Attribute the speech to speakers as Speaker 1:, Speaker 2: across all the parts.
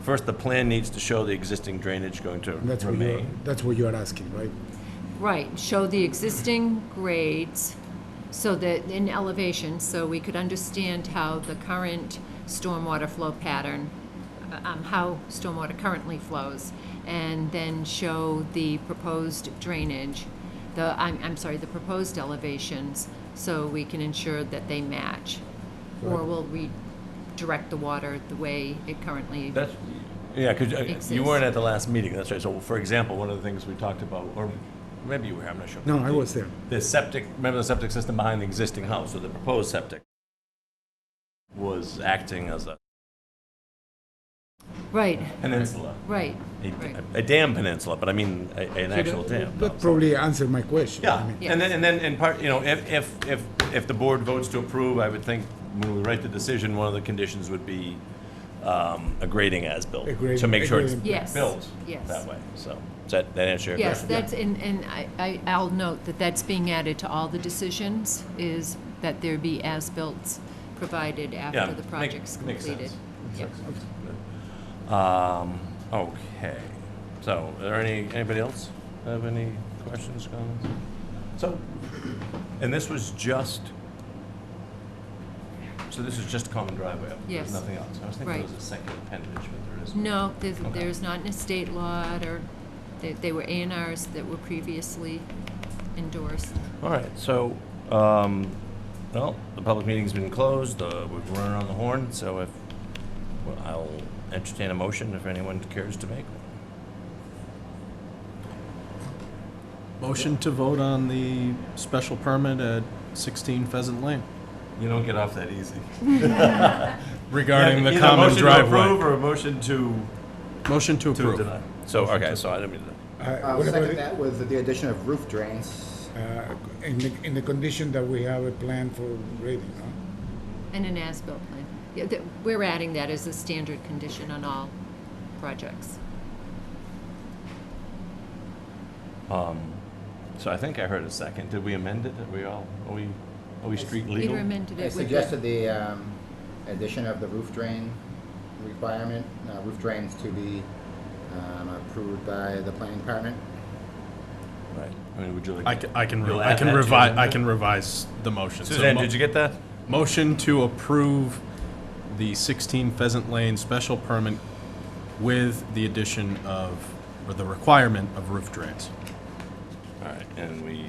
Speaker 1: First, the plan needs to show the existing drainage going to
Speaker 2: That's what you're,
Speaker 1: remain.
Speaker 2: that's what you're asking, right?
Speaker 3: Right, show the existing grades so that, in elevation, so we could understand how the current stormwater flow pattern, uh, um, how stormwater currently flows, and then show the proposed drainage, the, I'm, I'm sorry, the proposed elevations, so we can ensure that they match. Or we'll redirect the water the way it currently,
Speaker 1: That's, yeah, because you
Speaker 3: Exists.
Speaker 1: weren't at the last meeting, that's right. So, for example, one of the things we talked about, or maybe you were, I'm not sure.
Speaker 2: No, I was there.
Speaker 1: The septic, remember the septic system behind the existing house, or the proposed septic, was acting as a
Speaker 3: right,
Speaker 1: peninsula,
Speaker 3: right,
Speaker 1: a
Speaker 3: right.
Speaker 1: a dam peninsula, but I mean, a- an actual dam. no,
Speaker 2: That
Speaker 1: so-
Speaker 2: probably answered my question. I
Speaker 1: Yeah,
Speaker 2: mean,
Speaker 1: and then, and then, and part, you know, if, if, if, if the board votes to approve, I would think when we write the decision, one of the conditions would be um, a grading as-built.
Speaker 2: A grading-
Speaker 1: To make sure
Speaker 2: a grading.
Speaker 1: it's
Speaker 3: Yes,
Speaker 1: built
Speaker 3: yes.
Speaker 1: that way, so, does that, that answer your
Speaker 3: Yes,
Speaker 1: question?
Speaker 3: that's, and, and I- I, I'll note that that's being added to all the decisions, is that there be as-built provided
Speaker 1: Yeah,
Speaker 3: after the
Speaker 1: make-
Speaker 3: project's
Speaker 1: makes
Speaker 3: completed.
Speaker 1: sense.
Speaker 3: Yeah.
Speaker 1: Um, okay, so, are there any, anybody else have any questions, comments? So, and this was just, so this is just common driveway, there's
Speaker 3: Yes.
Speaker 1: nothing else? I was thinking there
Speaker 3: Right.
Speaker 1: was a second appendage, but there isn't.
Speaker 3: No, there's,
Speaker 1: Okay.
Speaker 3: there's not an estate lot, or, they, they were A and Rs that were previously endorsed.
Speaker 1: All right, so, um, well, the public meeting's been closed, uh, we've run around the horn, so if, well, I'll entertain a motion if anyone cares to make one.
Speaker 4: Motion to vote on the special permit at 16 Pheasant Lane
Speaker 1: You don't get off that easy.
Speaker 4: regarding the common driveway.
Speaker 1: or a motion to
Speaker 4: Motion to approve.
Speaker 1: deny. So, okay, so I didn't mean to,
Speaker 2: Uh,
Speaker 5: I'll
Speaker 2: what about
Speaker 5: second
Speaker 2: it,
Speaker 5: that with the addition of roof drains.
Speaker 2: uh, In the, in the condition that we have a plan for grading, no?
Speaker 3: And an as-built plan. Yeah, that, we're adding that as a standard condition on all projects.
Speaker 1: so I think I heard a second. Did we amend it? Are we all, are we, are we street legal?
Speaker 3: Peter amended it
Speaker 5: I
Speaker 3: with the-
Speaker 5: suggested the um, addition of the roof drain requirement, uh, roof drains to be um, approved by the planning department.
Speaker 1: Right, I mean, would you like?
Speaker 4: I can, I can, re-
Speaker 1: You'll
Speaker 4: I
Speaker 1: add
Speaker 4: can
Speaker 1: that to
Speaker 4: revise,
Speaker 1: it?
Speaker 4: I can revise the motion. So
Speaker 1: Suzanne,
Speaker 4: mo-
Speaker 1: did you get that?
Speaker 4: Motion to approve the 16 Pheasant Lane special permit with the addition of, or the requirement of roof drains.
Speaker 1: All right, and we,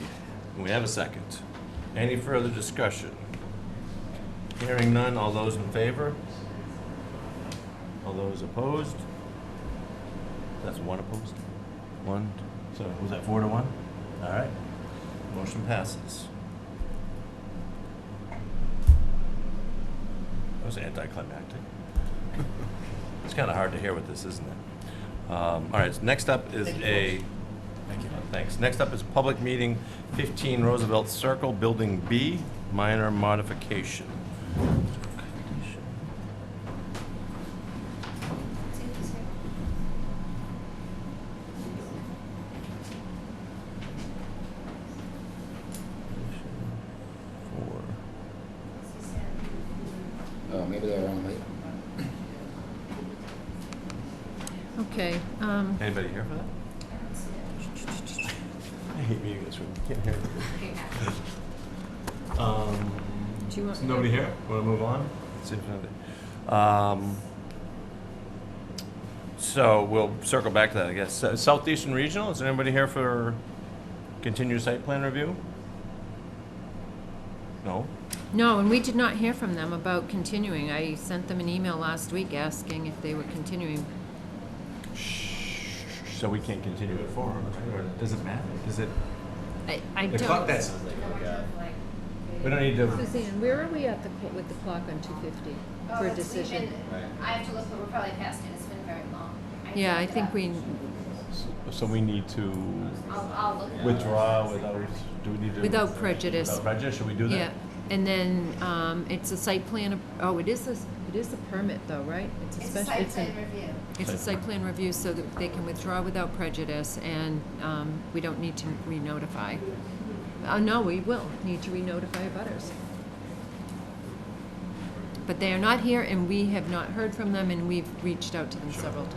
Speaker 1: we have a second. Any further discussion? Hearing none, all those in favor? All those opposed? That's one opposed? One, so was that four to one? All right, motion passes. That was anticlimactic. It's kind of hard to hear with this, isn't it? Um, All right, so next up is a Thank you. Thanks. Next up is public meeting 15 Roosevelt Circle, Building B, minor modification. Four.
Speaker 5: Oh, maybe they're only,
Speaker 3: Okay, um,
Speaker 1: Anybody here for that? I hate meeting this room. Can't hear it. Um,
Speaker 3: Do you want-
Speaker 1: is Nobody here? Want to move on? See if anybody- Um, so we'll circle back to that, I guess. Uh, Southeastern Regional, is there anybody here for continued site plan review? No?
Speaker 3: No, and we did not hear from them about continuing. I sent them an email last week asking if they were continuing.
Speaker 1: So we can't continue it forward, or does it matter? Does it?
Speaker 3: I, I
Speaker 1: The clock, that
Speaker 3: don't.
Speaker 1: sounds like, yeah. We don't need to,
Speaker 3: Suzanne, where are we at the, cl- with the clock on two fifty
Speaker 6: Oh,
Speaker 3: for a decision?
Speaker 6: I have to look, but we're probably past it, it's been very long.
Speaker 3: Yeah, I think we,
Speaker 1: so we need to
Speaker 6: I'll, I'll look.
Speaker 1: withdraw without, do we need to?
Speaker 3: Without prejudice.
Speaker 1: Without prejudice, should we do that?
Speaker 3: yeah, and then, um, it's a site plan, ap- oh, it is a, s- it is a permit though, right?
Speaker 6: It's a
Speaker 3: special.
Speaker 6: site plan review.
Speaker 3: It's a site plan review so that they can withdraw without prejudice and, um, we don't need to re-notify. Uh, no, we will need to re-notify abutters. but they are not here, and we have not heard from them, and we've reached out to them several times.